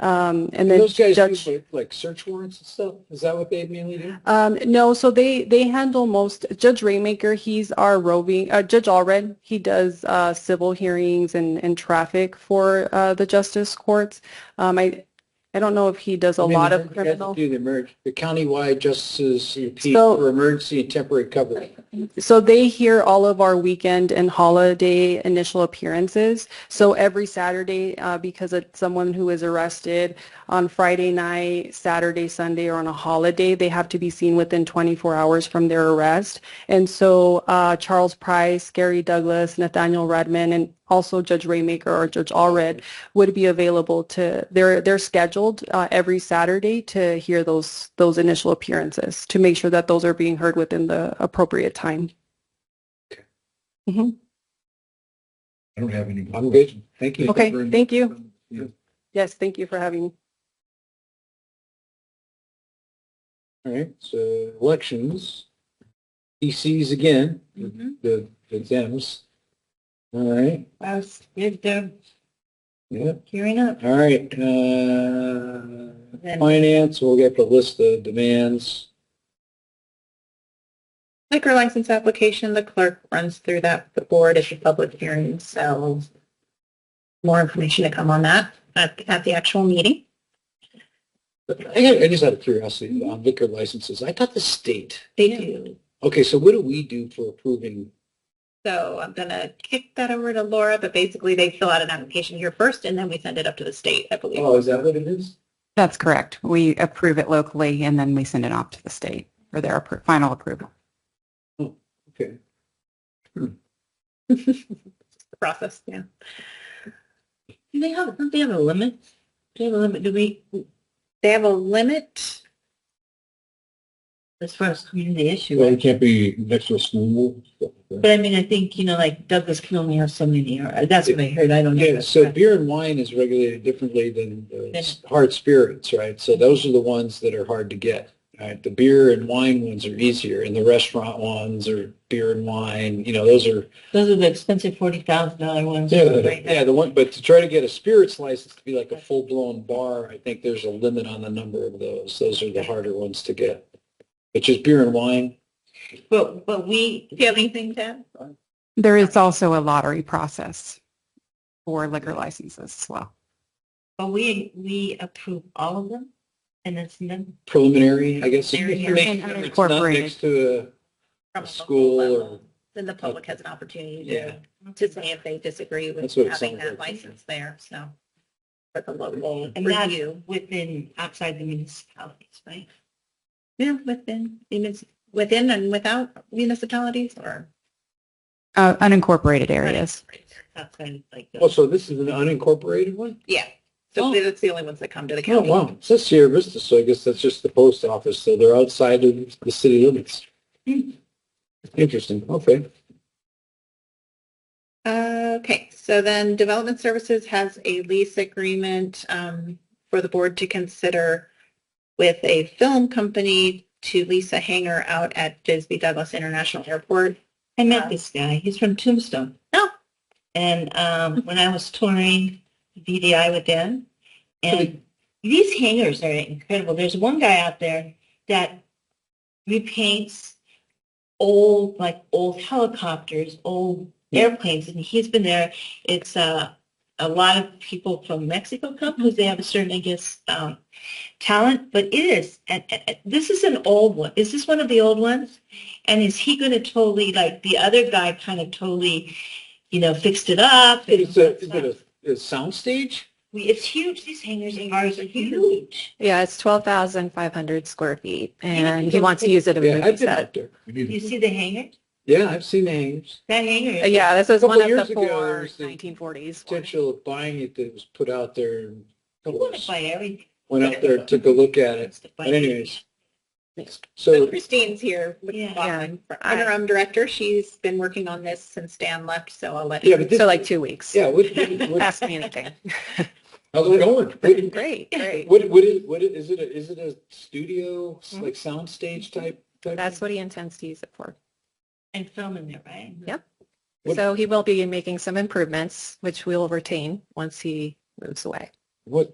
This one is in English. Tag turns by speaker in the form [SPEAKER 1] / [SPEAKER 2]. [SPEAKER 1] Um, and then
[SPEAKER 2] Those guys
[SPEAKER 1] judge.
[SPEAKER 2] use like- like search warrants and stuff? Is that what they mainly do?
[SPEAKER 1] Um, no, so they they handle most Judge Rainmaker. He's our roving uh, Judge Allred. He does uh, civil hearings and and traffic for uh, the justice courts. Um, I I don't know if he does a
[SPEAKER 2] I mean,
[SPEAKER 1] lot
[SPEAKER 2] the
[SPEAKER 1] of
[SPEAKER 2] emerg- you have to
[SPEAKER 1] criminal.
[SPEAKER 2] Do the emerg, the countywide justices and P
[SPEAKER 1] So-
[SPEAKER 2] for emergency and temporary cover.
[SPEAKER 1] So they hear all of our weekend and holiday initial appearances. So every Saturday, uh, because it's someone who is arrested on Friday night, Saturday, Sunday, or on a holiday, they have to be seen within 24 hours from their arrest. And so uh, Charles Price, Gary Douglas, Nathaniel Redman, and also Judge Raymaker or Judge Allred would be available to. They're they're scheduled uh, every Saturday to hear those those initial appearances to make sure that those are being heard within the appropriate time.
[SPEAKER 3] I don't have any.
[SPEAKER 2] I'm good. Thank you.
[SPEAKER 1] Okay, thank you.
[SPEAKER 3] Yeah.
[SPEAKER 1] Yes, thank you for having me.
[SPEAKER 2] All right, so elections, DCs again,
[SPEAKER 1] Mm-hmm.
[SPEAKER 4] Mhm.
[SPEAKER 2] the, the Dems. All right,
[SPEAKER 4] I was with them
[SPEAKER 2] yeah,
[SPEAKER 4] gearing up.
[SPEAKER 2] all right, uh,
[SPEAKER 4] Then-
[SPEAKER 2] finance, we'll get the list of demands.
[SPEAKER 4] Liquor license application, the clerk runs through that, with the board is a public hearing, so more information to come on that at, at the actual meeting.
[SPEAKER 2] I, I just out of curiosity on liquor licenses, I thought the state,
[SPEAKER 4] They do.
[SPEAKER 2] okay, so what do we do for approving?
[SPEAKER 4] So I'm gonna kick that over to Laura, but basically they fill out an application here first and then we send it up to the state, I believe.
[SPEAKER 2] Oh, is that what it is?
[SPEAKER 5] That's correct. We approve it locally and then we send it off to the state for their appro- final approval.
[SPEAKER 2] Okay,
[SPEAKER 4] Process, yeah. Do they have, don't they have a limit? Do they have a limit, do we? They have a limit? As far as community issue.
[SPEAKER 2] well, it can't be next to a school.
[SPEAKER 4] But I mean, I think, you know, like Douglas can only have so many, or uh, that's what I heard, I don't know.
[SPEAKER 2] Yeah, so beer and wine is regulated differently than uh, s- hard spirits, right? So those are the ones that are hard to get, right? The beer and wine ones are easier, and the restaurant ones are beer and wine, you know, those are,
[SPEAKER 4] Those are the expensive forty thousand dollar ones.
[SPEAKER 2] yeah, the one, but to try to get a spirits license to be like a full-blown bar, I think there's a limit on the number of those. Those are the harder ones to get. But just beer and wine,
[SPEAKER 4] But, but we. Do you have anything, Ted?
[SPEAKER 5] There is also a lottery process for liquor licenses as well.
[SPEAKER 4] But we, we approve all of them, and it's them
[SPEAKER 2] preliminary, I guess.
[SPEAKER 4] They're here.
[SPEAKER 2] It's not next to a-
[SPEAKER 4] from.
[SPEAKER 2] School or-
[SPEAKER 4] Then the public has an opportunity
[SPEAKER 2] Yeah.
[SPEAKER 4] to, to say if they disagree with
[SPEAKER 2] That's what it
[SPEAKER 4] having
[SPEAKER 2] sounds
[SPEAKER 4] that
[SPEAKER 2] like.
[SPEAKER 4] license there, so. For the local
[SPEAKER 6] And that's
[SPEAKER 4] review.
[SPEAKER 6] within, outside the municipalities, right?
[SPEAKER 4] Yeah, within, munis- within and without municipalities or.
[SPEAKER 5] Uh, unincorporated areas.
[SPEAKER 6] Outside, like,
[SPEAKER 2] Oh,
[SPEAKER 6] the-
[SPEAKER 2] so this is an unincorporated one?
[SPEAKER 4] Yeah,
[SPEAKER 2] Oh.
[SPEAKER 4] so that's the only ones that come to the
[SPEAKER 2] Oh,
[SPEAKER 4] county.
[SPEAKER 2] wow. It says Sierra Vista, so I guess that's just the post office, so they're outside of the city limits. Interesting, okay.
[SPEAKER 4] Uh, Okay, so then Development Services has a lease agreement um, for the board to consider with a film company to lease a hangar out at Bisbee Douglas International Airport. Uh,
[SPEAKER 6] I met this guy, he's from Tombstone.
[SPEAKER 4] Oh.
[SPEAKER 6] And, um, when I was touring VDI with them, and these hangars are incredible. There's one guy out there that repaints old, like, old helicopters, old airplanes, and he's been there. It's, uh, a lot of people from Mexico come because they have a certain, I guess, um, talent, but it is. And, and- and this is an old one. Is this one of the old ones? And is he going to totally like the other guy? Kind of totally, you know, fixed it up. and-
[SPEAKER 2] Is it, is it a, a soundstage?
[SPEAKER 6] We- it's huge. These hangars and bars are huge.
[SPEAKER 7] Yeah, it's twelve thousand five hundred square feet
[SPEAKER 6] can
[SPEAKER 7] and he
[SPEAKER 6] go
[SPEAKER 7] wants to
[SPEAKER 6] big.
[SPEAKER 7] use it as a
[SPEAKER 2] Yeah,
[SPEAKER 7] movie
[SPEAKER 2] I've been
[SPEAKER 7] set.
[SPEAKER 2] out there.
[SPEAKER 3] We need
[SPEAKER 6] You see the hangar?
[SPEAKER 2] Yeah, I've seen names.
[SPEAKER 6] That hangar.
[SPEAKER 7] Uh,
[SPEAKER 6] is-
[SPEAKER 7] Yeah, this was
[SPEAKER 2] Couple
[SPEAKER 7] one of
[SPEAKER 2] years
[SPEAKER 7] the
[SPEAKER 2] ago, there
[SPEAKER 7] four
[SPEAKER 2] was the
[SPEAKER 7] nineteen forties.
[SPEAKER 2] Potential of buying it that was put out there. and
[SPEAKER 6] You want to buy everything.
[SPEAKER 2] Went out there, took a look at it.
[SPEAKER 6] But
[SPEAKER 2] But anyways,
[SPEAKER 4] So
[SPEAKER 2] so
[SPEAKER 4] Christine's here, with
[SPEAKER 6] Yeah.
[SPEAKER 4] Boston, for interim director. She's been working on this since Dan left, so I'll let
[SPEAKER 2] Yeah,
[SPEAKER 4] her.
[SPEAKER 2] but this-
[SPEAKER 7] So like two weeks.
[SPEAKER 2] yeah, what, what- what-
[SPEAKER 7] Ask me anything.
[SPEAKER 2] how's it going?
[SPEAKER 7] Great, great.
[SPEAKER 2] What, what is, what is it, a- is it a studio, like soundstage type? type
[SPEAKER 7] That's
[SPEAKER 2] thing?
[SPEAKER 7] what he intends to use it for.
[SPEAKER 6] And film in there, right?
[SPEAKER 7] Yep.
[SPEAKER 2] What-
[SPEAKER 7] So he will be making some improvements, which we'll retain once he moves away.
[SPEAKER 2] What